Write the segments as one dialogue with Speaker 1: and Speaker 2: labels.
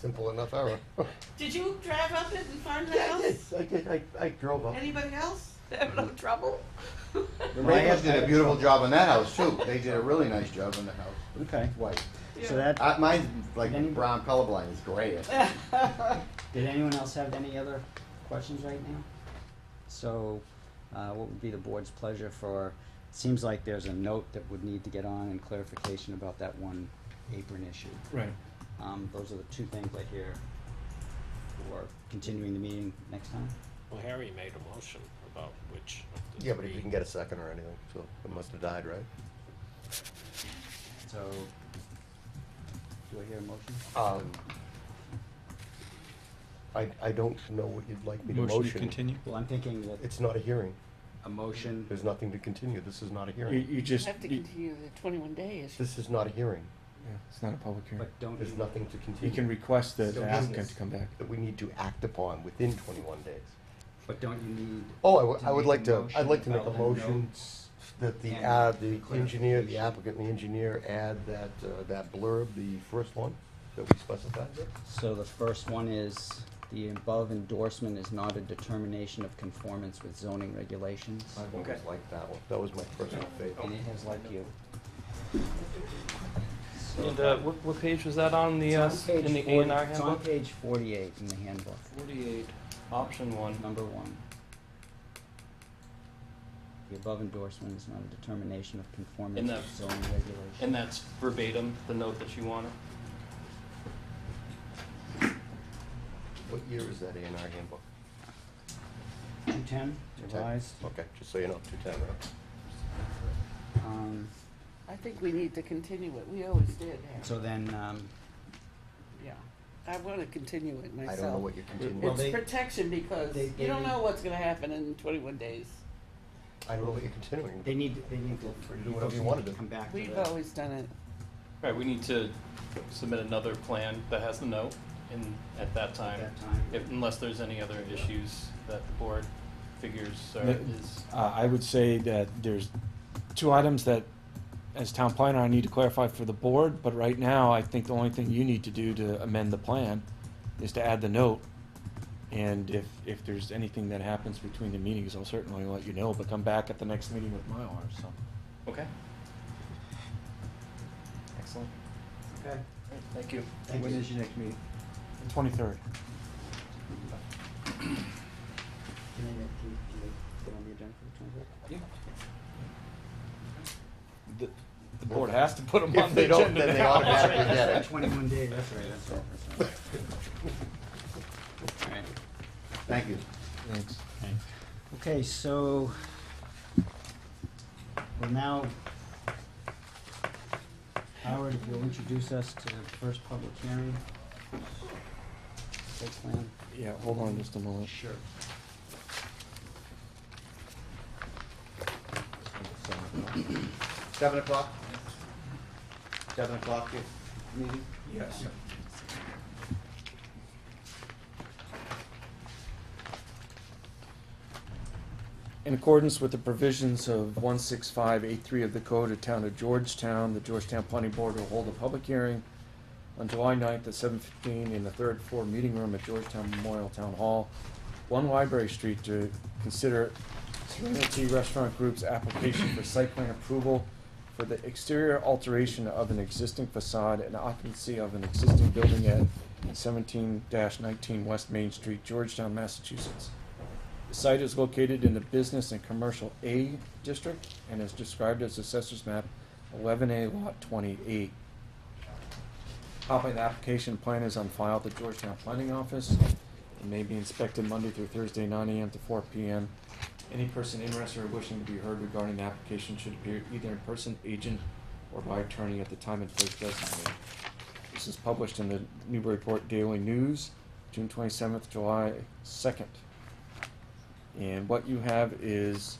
Speaker 1: Simple enough error.
Speaker 2: Did you drive up it and find the
Speaker 3: Yeah, I
Speaker 2: house?
Speaker 3: did, I did, I, I drove up. Mm-hmm.
Speaker 2: Anybody else having no trouble?
Speaker 1: The
Speaker 4: Well, I
Speaker 1: Ravens
Speaker 4: have-
Speaker 1: did a beautiful job on that house too. They did a really nice job on the house.
Speaker 4: Okay,
Speaker 1: It's white.
Speaker 4: so
Speaker 2: Yeah.
Speaker 4: that,
Speaker 1: Uh, mine's like
Speaker 4: Any-
Speaker 1: brown colorblind. It's gray.
Speaker 4: did anyone else have any other questions right now? So, uh, what would be the board's pleasure for, seems like there's a note that would need to get on and clarification about that one apron issue.
Speaker 3: Right.
Speaker 4: Um, those are the two things I hear for continuing the meeting next time.
Speaker 5: Well, Harry made a motion about which of the
Speaker 3: Yeah, but if
Speaker 5: three-
Speaker 3: you can get a second or anything, so it must have died, right?
Speaker 4: So, do I hear a motion?
Speaker 3: Um, I, I don't know what you'd like me to motion.
Speaker 6: Motion to continue?
Speaker 4: Well, I'm thinking that
Speaker 3: It's not a hearing.
Speaker 4: a motion,
Speaker 3: There's nothing to continue. This is not a
Speaker 6: You,
Speaker 3: hearing.
Speaker 6: you just,
Speaker 2: Have to
Speaker 6: you
Speaker 2: continue the twenty-one days.
Speaker 3: This is not a hearing.
Speaker 6: yeah, it's not a public hearing.
Speaker 4: but don't
Speaker 3: There's
Speaker 4: you,
Speaker 3: nothing to
Speaker 6: You can
Speaker 3: continue
Speaker 6: request the-
Speaker 3: So
Speaker 6: the applicant
Speaker 3: business.
Speaker 6: to come back.
Speaker 3: that we need to act upon within twenty-one days.
Speaker 4: but don't you need,
Speaker 3: Oh, I would-
Speaker 4: To
Speaker 3: I would like
Speaker 4: make a
Speaker 3: to, I'd like to
Speaker 4: motion
Speaker 3: make a
Speaker 4: about
Speaker 3: motion that the, ad, the
Speaker 4: and
Speaker 3: engineer, the
Speaker 4: clarification.
Speaker 3: applicant, and the engineer add that, uh, that blurb, the first one that we specified.
Speaker 4: so the first one is, the above endorsement is not a determination of conformance with zoning regulations?
Speaker 3: I always liked that one. That was my personal
Speaker 4: And
Speaker 3: favorite.
Speaker 4: it has like you. So-
Speaker 7: And uh, what, what page was that on the, uh,
Speaker 4: It's on
Speaker 7: in the
Speaker 4: page
Speaker 7: A and
Speaker 4: 40
Speaker 7: R
Speaker 4: It's on
Speaker 7: handbook?
Speaker 4: page forty-eight in the handbook,
Speaker 7: Forty-eight, option one.
Speaker 4: number one. The above endorsement is not a determination of conformance
Speaker 7: In the-
Speaker 4: with zoning regulations.
Speaker 7: And that's verbatim, the note that you wanted?
Speaker 3: What year is that A and R handbook?
Speaker 4: Two ten, revised.
Speaker 3: Okay, just so you know, two ten, right?
Speaker 4: Um,
Speaker 2: I think we need to continue it. We always did have,
Speaker 4: so then, um,
Speaker 2: yeah. I wanna continue it
Speaker 3: I
Speaker 2: myself.
Speaker 3: don't know what you're
Speaker 4: Well,
Speaker 3: continuing,
Speaker 4: they-
Speaker 2: It's protection because
Speaker 4: they-
Speaker 2: you don't
Speaker 4: they-
Speaker 2: know what's gonna happen in twenty-one days.
Speaker 3: I don't know what you're continuing.
Speaker 4: they need, they need to, for
Speaker 3: Do
Speaker 4: you
Speaker 3: whatever
Speaker 4: folks
Speaker 3: you wanna
Speaker 4: to
Speaker 3: do.
Speaker 4: come back to
Speaker 2: We've
Speaker 4: the-
Speaker 2: always done it.
Speaker 7: Right, we need to submit another plan that has the note and at that time,
Speaker 4: that time.
Speaker 7: if, unless there's any other issues that the board figures or
Speaker 6: Yeah.
Speaker 7: is.
Speaker 6: Uh, I would say that there's two items that, as town planner, I need to clarify for the board, but right now, I think the only thing you need to do to amend the plan is to add the note. And if, if there's anything that happens between the meetings, I'll certainly let you know, but come back at the next meeting with Mylar, so.
Speaker 7: Okay. Excellent.
Speaker 4: Okay,
Speaker 7: Great, Thank you.
Speaker 4: thank you.
Speaker 6: your next meeting? Twenty-third.
Speaker 4: Can I, get- can, can I get on the agenda for the twenty-third?
Speaker 6: The, the board has to put them
Speaker 3: If
Speaker 6: on the
Speaker 3: they don't,
Speaker 6: agenda
Speaker 3: then they
Speaker 6: now.
Speaker 3: automatically
Speaker 4: That's
Speaker 3: get
Speaker 4: right,
Speaker 3: it.
Speaker 4: Twenty-one days, that's right, that's right, that's right. Alright,
Speaker 3: Thank you.
Speaker 6: Thanks.
Speaker 4: okay, so we'll now, Howard, if you'll introduce us to the first public hearing. Site plan.
Speaker 6: Yeah, hold on just a moment.
Speaker 4: Sure.
Speaker 1: Seven o'clock? Seven o'clock, your
Speaker 3: Mm-hmm.
Speaker 1: meeting?
Speaker 6: Yes. In accordance with the provisions of one six five eight three of the Code of Town of Georgetown, the Georgetown Planning Board will hold a public hearing on July 9th at seven fifteen in the third floor meeting room at Georgetown Memorial Town Hall, One Library Street to consider Serenity Restaurant Group's application for site plan approval for the exterior alteration of an existing facade and occupancy of an existing building at seventeen nineteen West Main Street, Georgetown, Massachusetts. The site is located in the Business and Commercial A District and is described as Assessor's Map eleven A Lot twenty-eight. Copy of the application plan is on file at the Georgetown Planning Office and may be inspected Monday through Thursday, nine AM to four PM. Any person interested or wishing to be heard regarding the application should appear either in person, agent, or by attorney at the time and place designated. This is published in the Newburyport Daily News, June twenty-seventh, July second. And what you have is,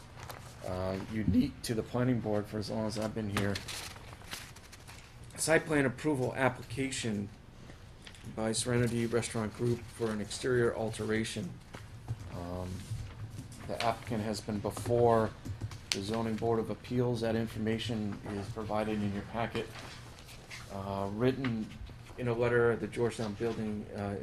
Speaker 6: uh, unique to the planning board for as long as I've been here. Site plan approval application by Serenity Restaurant Group for an exterior alteration. Um, the applicant has been before the zoning board of appeals. That information is provided in your packet. Uh, written in a letter, the Georgetown Building uh,